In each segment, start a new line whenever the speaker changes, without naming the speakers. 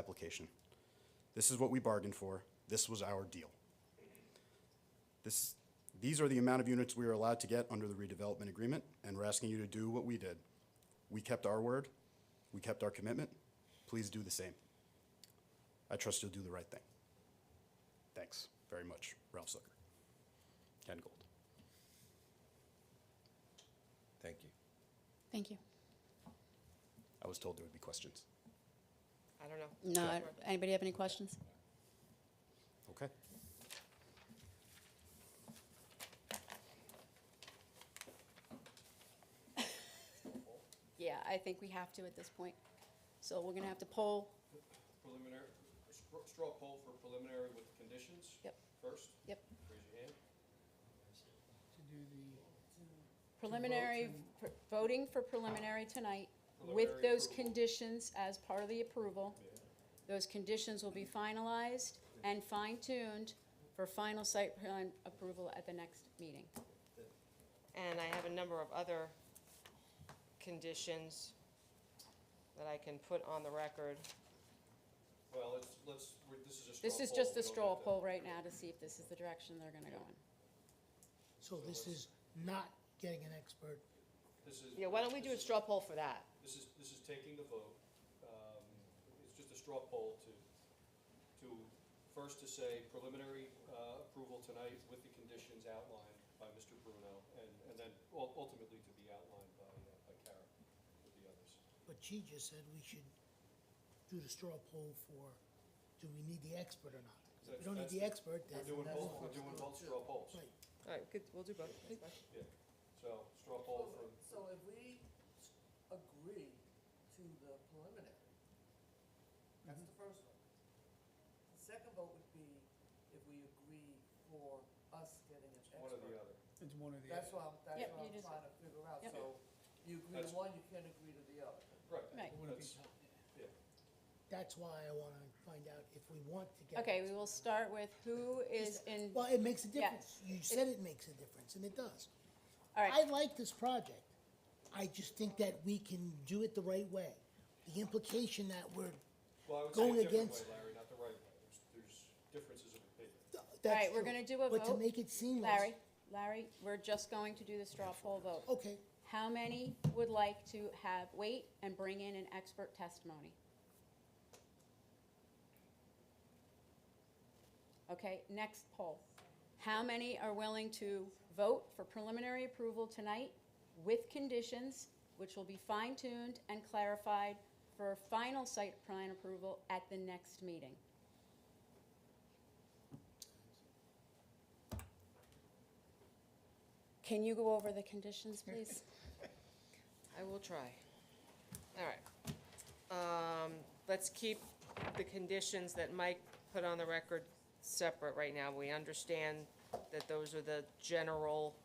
application. This is what we bargained for. This was our deal. This, these are the amount of units we are allowed to get under the redevelopment agreement, and we're asking you to do what we did. We kept our word. We kept our commitment. Please do the same. I trust you'll do the right thing. Thanks very much, Ralph Zucker. Ken Gold.
Thank you.
Thank you.
I was told there would be questions.
I don't know.
No, I- anybody have any questions?
Okay.
Yeah, I think we have to at this point. So we're gonna have to poll.
preliminary, str- straw poll for preliminary with conditions?
Yep.
First,
Yep.
raise your hand.
Preliminary, pr- voting for preliminary tonight with those conditions as part of the approval. Those conditions will be finalized and fine-tuned for final site plan approval at the next meeting.
And I have a number of other conditions that I can put on the record.
Well, let's, let's, we're- this is a straw poll.
This is just
we
a
don't
straw
have to-
poll right now to see if this is the direction they're gonna go in.
So this is not getting an expert.
This is.
Yeah, why don't we do a
this is-
straw poll for that?
This is, this is taking the vote. Um, It's just a straw poll to, to, first to say preliminary uh, approval tonight with the conditions outlined by Mr. Bruno, and, and then ul- ultimately to be outlined by, uh, by Karen with the others.
But she just said we should do the straw poll for, do we need the expert or not? If we don't need the expert, then
We're doing
that's
both,
not-
we're doing both straw polls.
Right.
All right, good, we'll do both.
Yeah, so straw poll for,
So if we s- agree to the preliminary, that's the first one. The second vote would be if we agree for us getting an expert.
one or the other.
It's one of the.
That's what I'm, that's
Yep,
what
you
I'm
just-
trying to figure out,
Yep.
so you agree
That's-
to one, you can't agree to the other.
Right.
Right.
It wouldn't be
That's-
tough.
yeah.
That's why I wanna find out if we want to get. an
Okay, we
expert.
will start with who is in,
Well, it makes a
Yeah.
difference. You said it makes a difference, and it does.
all right.
I like this project. I just think that we can do it the right way. The implication that we're,
Well, I would
Going
say a different way,
against-
Larry, not the right way. There's, there's differences of opinion.
All
that's
right, we're
true.
gonna do a
But to
vote.
make it seamless.
Larry, Larry, we're just going to do the straw poll vote.
Okay,
How many would like to have, wait and bring in an expert testimony? Okay, next poll. How many are willing to vote for preliminary approval tonight with conditions, which will be fine-tuned and clarified for final site plan approval at the next meeting? Can you go over the conditions, please?
I will try. All right. Um, let's keep the conditions that Mike put on the record separate right now. We understand that those are the general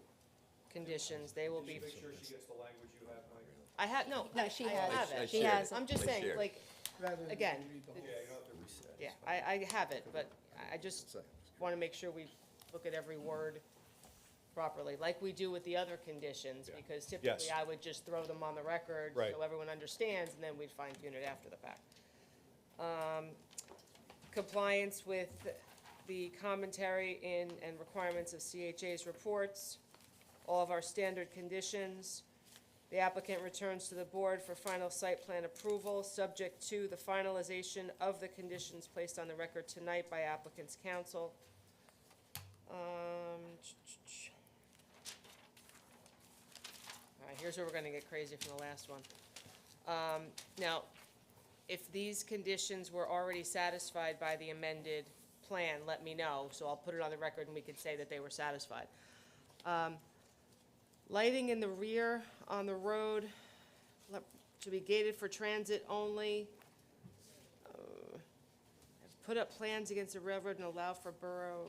conditions. They will
Did you
be.
make sure she gets the language you have, Mike?
I have, no.
No,
I-
she
I
has.
have
I
it.
She shared has it.
I'm just
I
saying,
shared it.
like,
Rather than
Again,
read the whole-
Yeah, you don't have to reset.
yeah, I, I have it, but I- I just want to make sure we look at every word properly, like we do with the other conditions,
Yeah.
because typically
Yes.
I would just throw them on the record
Right.
so everyone understands, and then we'd fine tune it after the fact. Um, Compliance with the commentary in, and requirements of CHA's reports, all of our standard conditions. The applicant returns to the board for final site plan approval, subject to the finalization of the conditions placed on the record tonight by applicant's counsel. Um, all right, here's where we're gonna get crazy from the last one. Um, now, if these conditions were already satisfied by the amended plan, let me know, so I'll put it on the record and we can say that they were satisfied. Um, Lighting in the rear on the road le- to be gated for transit only. Uh, Put up plans against the railroad and allow for borough,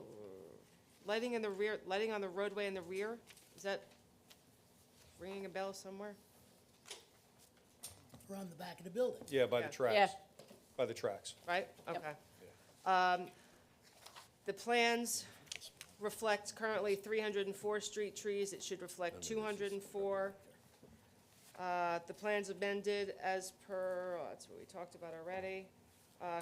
lighting in the rear, lighting on the roadway in the rear, is that ringing a bell somewhere?
around the back of the building.
Yeah, by the
Yeah.
tracks, by the tracks.
right? Okay. Um, The plans reflect currently 304 street trees, it should reflect 204. Uh, The plans amended as per, oh, that's what we talked about already. Uh,